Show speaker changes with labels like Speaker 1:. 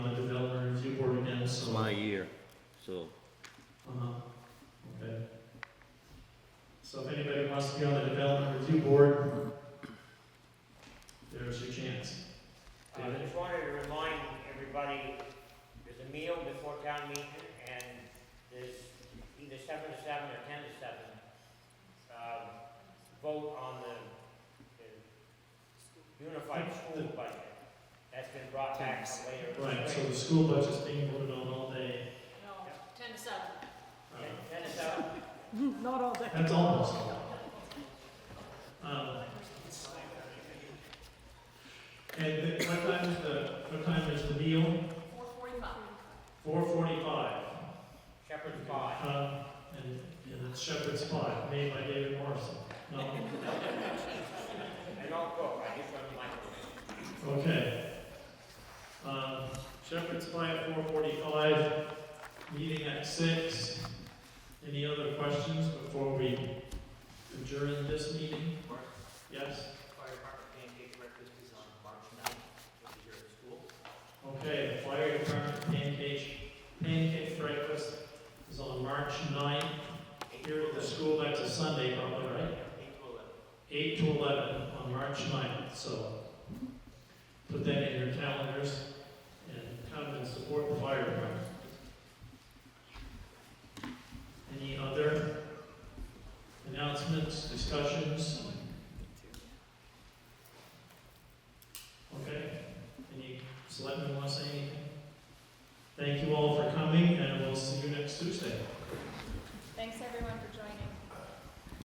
Speaker 1: my year, so.
Speaker 2: Uh-huh, okay. So if anybody wants to be on the development review board, there's your chance.
Speaker 3: I just wanted to remind everybody, there's a meal before town meeting, and there's either seven to seven or ten to seven. uh, Vote on the the unified school budget. That's been brought back later.
Speaker 2: Right, so the school budget's being voted on all day.
Speaker 4: No, ten to seven.
Speaker 2: Uh,
Speaker 3: Ten- Ten to seven,
Speaker 5: Not all day.
Speaker 2: That's almost all. Um, And the- what time is the, what time is the meal?
Speaker 4: Four forty-five.
Speaker 2: Four forty-five.
Speaker 3: Shepherd's Pie.
Speaker 2: Um, and, and it's Shepherd's Pie, made by David Morrison. No,
Speaker 3: I don't cook, I just run the microwave.
Speaker 2: Okay. Um, Shepherd's Pie at four forty-five, meeting at six. Any other questions before we adjourn this meeting? Yes?
Speaker 6: Fire department pancake breakfast is on March ninth, which is here at school.
Speaker 2: Okay, the fire department pancake, pancake breakfast is on March ninth. Here at the school, that's a Sunday probably, right?
Speaker 6: April eleventh.
Speaker 2: eight to eleven on March 9th, so put that in your calendars and come and support the fire department. Any other announcements, discussions?